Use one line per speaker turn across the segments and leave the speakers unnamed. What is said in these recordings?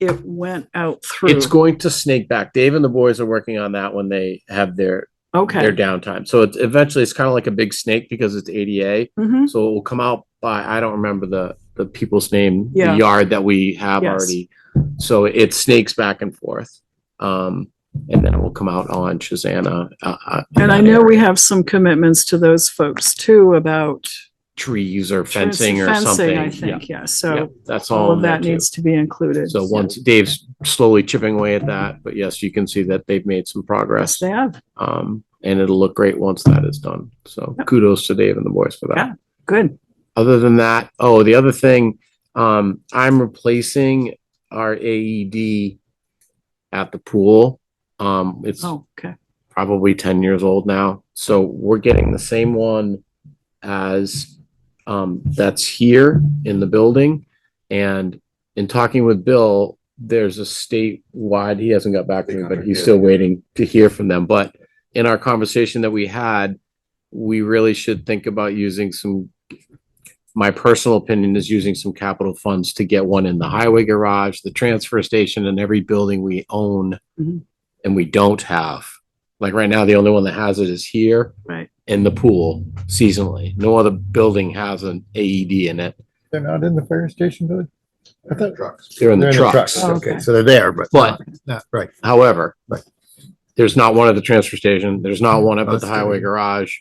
it went out through.
It's going to snake back. Dave and the boys are working on that when they have their, their
Okay.
downtime. So it's eventually, it's kind of like a big snake because it's ADA.
Mhm.
So it will come out by, I don't remember the, the people's name, the
Yeah.
yard that we have
Yes.
already. So it snakes back and forth. Um, and then it will come out on Shazana. uh, uh, in
And I
that
know we
area.
have some commitments to those folks too about.
Trees or fencing or
fencing,
something.
I
Yeah.
think, yeah.
Yeah,
So
That's all.
all of
in there
that
too.
needs to be included.
So once Dave's slowly chipping away at that, but yes, you can see that they've made some
Yes,
progress.
they have.
Um, and it'll look great once that is done. So
Yep.
kudos to Dave and the boys for that
Yeah. Good.
other than that, oh, the other thing, um, I'm replacing our AED at the pool. Um, it's
Oh, okay.
probably ten years old now, so we're getting the same one as um, that's here in the building. And in talking with Bill, there's a statewide, he hasn't got back to me, but he's still waiting to hear from them. But in our conversation that we had, we really should think about using some my personal opinion is using some capital funds to get one in the highway garage, the transfer station, and every building we own
Mhm.
and we don't have. Like right now, the only one that has it is here.
Right.
In the pool seasonally. No other building has an AED in it.
They're not in the fire station, Billy? I thought-
Trucks.
They're in
They're
the trucks.
Oh,
Okay,
okay.
so they're there, but.
But-
Not, right.
However,
Right.
there's not one at the transfer station. There's not one up at
That's
the highway
good.
garage.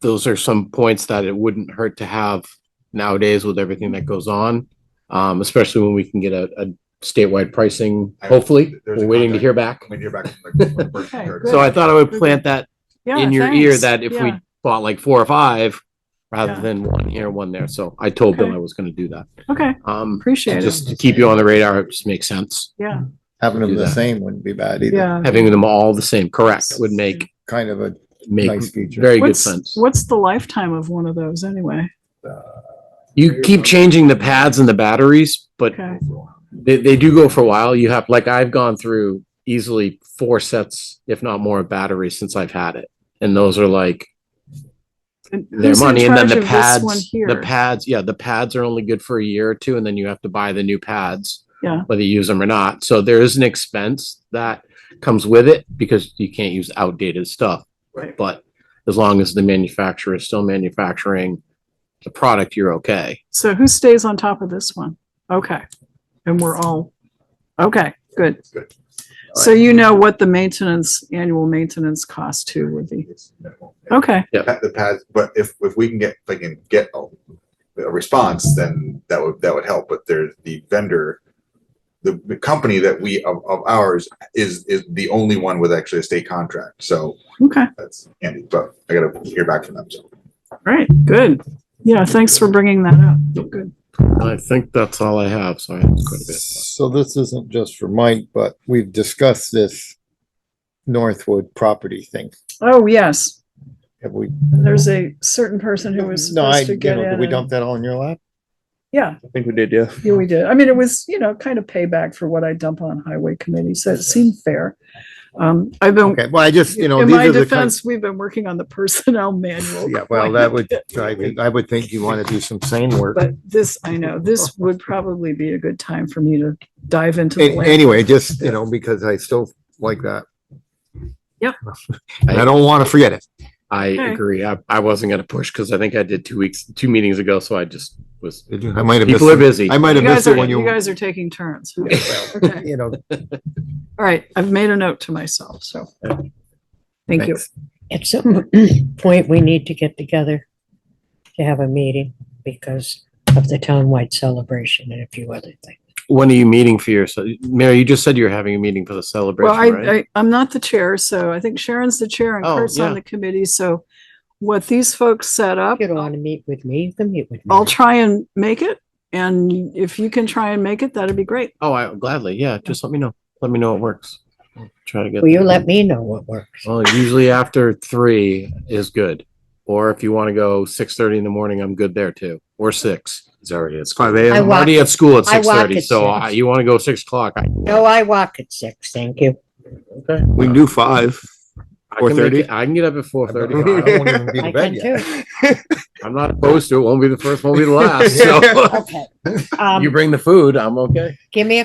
Those are some points that it wouldn't hurt to have nowadays with everything that goes on. Um, especially when we can get a, a statewide pricing,
I-
hopefully.
there's a
We're waiting to
contact.
hear back.
When you're back from the- from the first
Okay,
year.
good.
So I thought I would plant that
Yeah.
in your ear
thanks.
that if we
Yeah.
bought like four or five, rather
Yeah.
than one here, one there. So I told Bill
Okay.
I was gonna do that.
Okay,
Um,
appreciate it.
just to keep you on the radar, it just makes sense.
Yeah,
Having
Do
them the
that.
same wouldn't be bad either.
yeah.
Having them all the same, correct, would make,
Kind of a
make
nice feature.
very good
What's-
sense.
What's the lifetime of one of those anyway?
You keep changing the pads and the batteries, but
Okay,
they, they do go for a while. You have, like, I've gone through easily four sets, if not more, of batteries since I've had it. And those are like
And
their
who's in
money. And then
charge
the
of this one
pads, the
here?
pads, yeah, the pads are only good for a year or two, and then you have to buy the new pads.
Yeah.
Whether you use them or not. So there is an expense that comes with it because you can't use outdated stuff.
Right.
But as long as the manufacturer is still manufacturing the product, you're okay.
So who stays on top of this one? Okay, and we're all, okay, good.
Good.
So you know what the maintenance, annual maintenance cost too would be.
It's minimal.
Okay,
Pa- The pads, but if, if we can get, if I can get a, a response, then that would, that would help, but there's the vendor. The, the company that we, of, of ours is, is the only one with actually a state contract, so
okay,
that's Andy, but I gotta hear back from them, so.
great, good. Yeah, thanks for bringing that up. Good.
I think that's all I have. So I have quite a bit.
So this isn't just for Mike, but we've discussed this Northwood property thing.
Oh, yes,
Have we?
there's a certain person who was
No, I,
supposed to
you
get
know, did
in.
we
and-
dump that all in your lap?
Yeah,
I think we did, yeah.
Yeah, we did. I mean, it was, you know, kind of payback for what I dump on highway committee, so it seemed fair. Um, I've been,
Okay, well, I just, you know,
in
these
my
are the kinds.
defense, we've been working on the personnel manual.
Yeah, well, that would, I think, I would think you want to do some sane work.
But this, I know, this would probably be a good time for me to dive into the
An-
land.
Anyway, just, you know, because I still like that.
Yep.
And I don't want to forget it.
I
Okay.
agree. I, I wasn't gonna push because I think I did two weeks, two meetings ago, so I just was,
I might have missed.
people are
it.
busy.
I might
You
have
guys
missed it
are,
when
you
you,
guys are taking turns. huh? Okay,
you know,
all right, I've made a note to myself, so. Thank you.
Thanks.
At some point, we need to get together to have a meeting because of the townwide celebration and a few other things.
When are you meeting for your, ce- Mary, you just said you were having a meeting for the
Well,
celebration,
I,
right?
I, I'm not the chair, so I think Sharon's the chair and
Oh,
Kurt's on
yeah.
the committee, so what these folks set up.
You don't want to meet with me, you can meet with me.
I'll try and make it. And if you can try and make it, that'd be great.
Oh, I gladly, yeah, just let me know. Let me know it works. I'll Try to get.
Will you let me know what works?
Well, usually after three is good. Or if you want to go six thirty in the morning, I'm good there too, or six. It's already, it's five AM.
I
I'm
walk-
already at school at
I walk
six thirty,
at
so
six.
I- you want to go six o'clock? I-
No, I walk at six, thank you.
Okay.
We can do five.
I can make
4:30?
it- I can get up at four
I
thirty.
won't even be
I
to bed
can
yet.
too.
I'm not opposed to it. Won't be the first, won't be the last. So
Okay.
you
Um,
bring the food, I'm okay.
give me a